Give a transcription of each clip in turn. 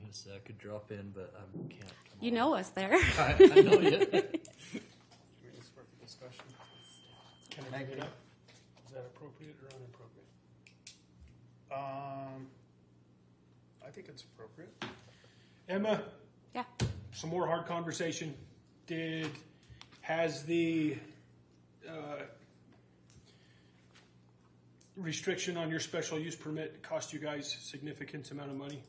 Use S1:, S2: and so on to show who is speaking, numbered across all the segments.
S1: gonna say I could drop in, but I can't.
S2: You know us there.
S1: I, I know you.
S3: We're just for discussion. Can I bring it up? Is that appropriate or inappropriate? Um, I think it's appropriate. Emma,
S2: yeah.
S3: some more hard conversation. Did, has the, uh, restriction on your special use permit cost you guys significant amount of money?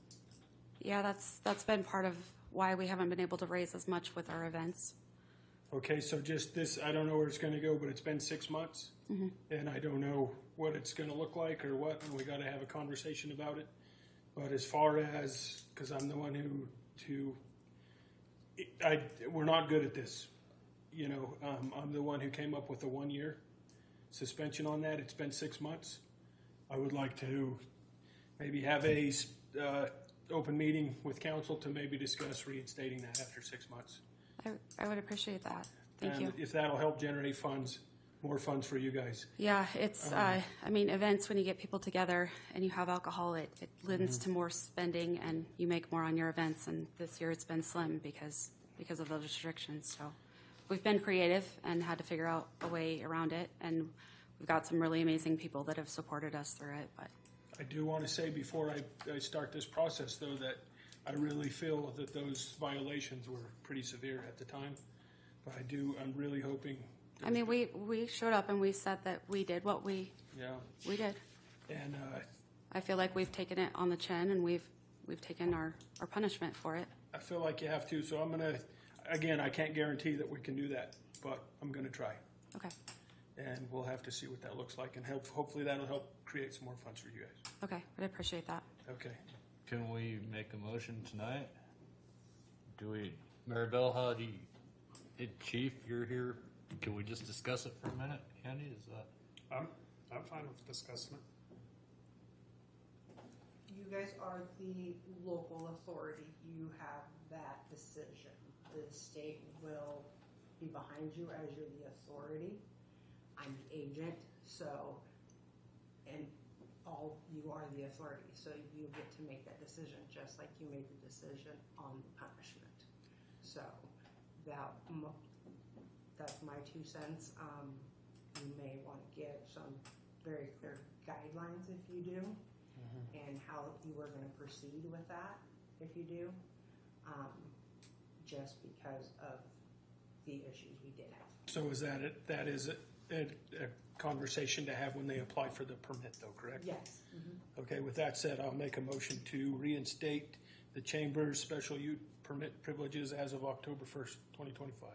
S2: Yeah, that's that's been part of why we haven't been able to raise as much with our events.
S3: Okay, so just this, I don't know where it's gonna go, but it's been six months. And I don't know what it's gonna look like or what, and we gotta have a conversation about it. But as far as, cause I'm the one who, to, I, we're not good at this. You know, um, I'm the one who came up with the one year suspension on that. It's been six months. I would like to maybe have a, s- uh, open meeting with council to maybe discuss reinstating that after six months.
S2: I, I would appreciate that. Thank
S3: And
S2: you.
S3: if that'll help generate funds, more funds for you guys.
S2: Yeah, it's, uh, I mean, events, when you get people together and you have alcohol, it, it lends to more spending and you make more on your events. And this year it's been slim because, because of those restrictions. So we've been creative and had to figure out a way around it. And we've got some really amazing people that have supported us through it, but
S3: I do want to say before I, I start this process, though, that I really feel that those violations were pretty severe at the time. But I do, I'm really hoping,
S2: I mean, we, we showed up and we said that we did what we,
S3: yeah.
S2: we did.
S3: And uh,
S2: I feel like we've taken it on the chin and we've, we've taken our, our punishment for it.
S3: I feel like you have to, so I'm gonna, again, I can't guarantee that we can do that, but I'm gonna try.
S2: Okay,
S3: And we'll have to see what that looks like, and help, hopefully that'll help create some more funds for you guys.
S2: okay, I'd appreciate that.
S3: Okay.
S1: Can we make a motion tonight? Do we, Maribel, how do you, did Chief, you're here, can we just discuss it for a minute, Candy, is that?
S4: I'm, I'm fine with discussing it.
S5: You guys are the local authority. You have that decision. The state will be behind you as you're the authority. I'm the agent, so, and all, you are the authority, so you get to make that decision, just like you made the decision on the punishment. So, that, mo- that's my two cents. Um, you may want to give some very clear guidelines if you do and how you were gonna proceed with that, if you do, um, just because of the issues we did have.
S3: So is that it? That is a, a, a conversation to have when they apply for the permit, though, correct?
S5: Yes.
S3: Okay. With that said, I'll make a motion to reinstate the chamber's special use permit privileges as of October first, twenty twenty-five,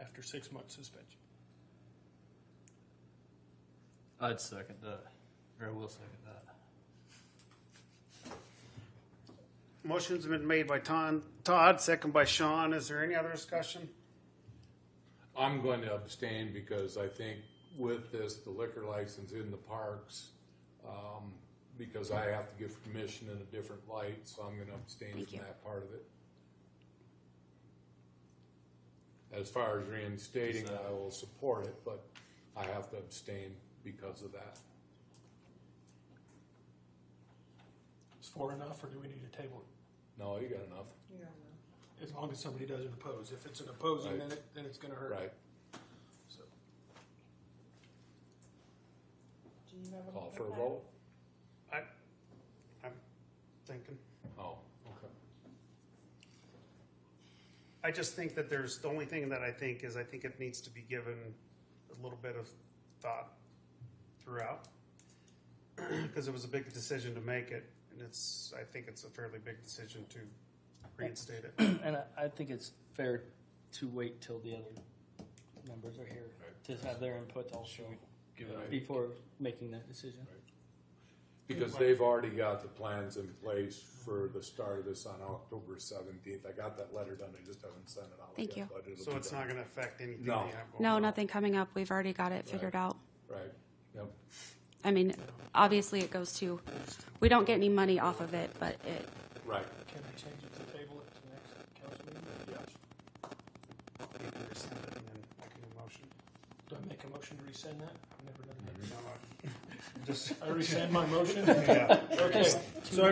S3: after six months suspension.
S1: I'd second that, or I will second that.
S4: Motion's been made by Ton- Todd, second by Sean. Is there any other discussion?
S6: I'm going to abstain because I think with this, the liquor license in the parks, um, because I have to give permission in a different light, so I'm gonna abstain
S2: Thank
S6: from
S2: you.
S6: that part of it. As far as reinstating, I will support it, but I have to abstain because of that.
S3: Is four enough, or do we need a table?
S6: No, you got enough,
S3: it? As long as somebody doesn't oppose. If it's an opposing, then it, then it's gonna hurt.
S6: right?
S3: So,
S5: Do you have a?
S6: Call for a vote?
S4: I, I'm thinking.
S6: Oh, okay.
S4: I just think that there's, the only thing that I think is I think it needs to be given a little bit of thought throughout. Because it was a big decision to make it, and it's, I think it's a fairly big decision to reinstate it.
S7: And I- I think it's fair to wait till the other members are here to have their input also
S1: Give it,
S7: before making that decision.
S6: Because they've already got the plans in place for the start of this on October seventeenth. I got that letter done, I just haven't sent it out
S2: Thank you.
S6: yet. but it'll
S4: So
S6: be
S4: it's
S6: done.
S4: not gonna affect anything
S6: No.
S4: you have going
S2: No,
S4: on.
S2: nothing coming up. We've already got it figured out.
S6: Right, yep,
S2: I mean, obviously it goes to, we don't get any money off of it, but it,
S6: right,
S3: Can we change it to table it to the next council meeting?
S6: yes.
S4: You can rescind it and then make a new motion.
S3: Do I make a motion to rescind that? I've never done that.
S4: No, I- Just,
S3: I rescind my motion?
S4: yeah.
S3: Okay. So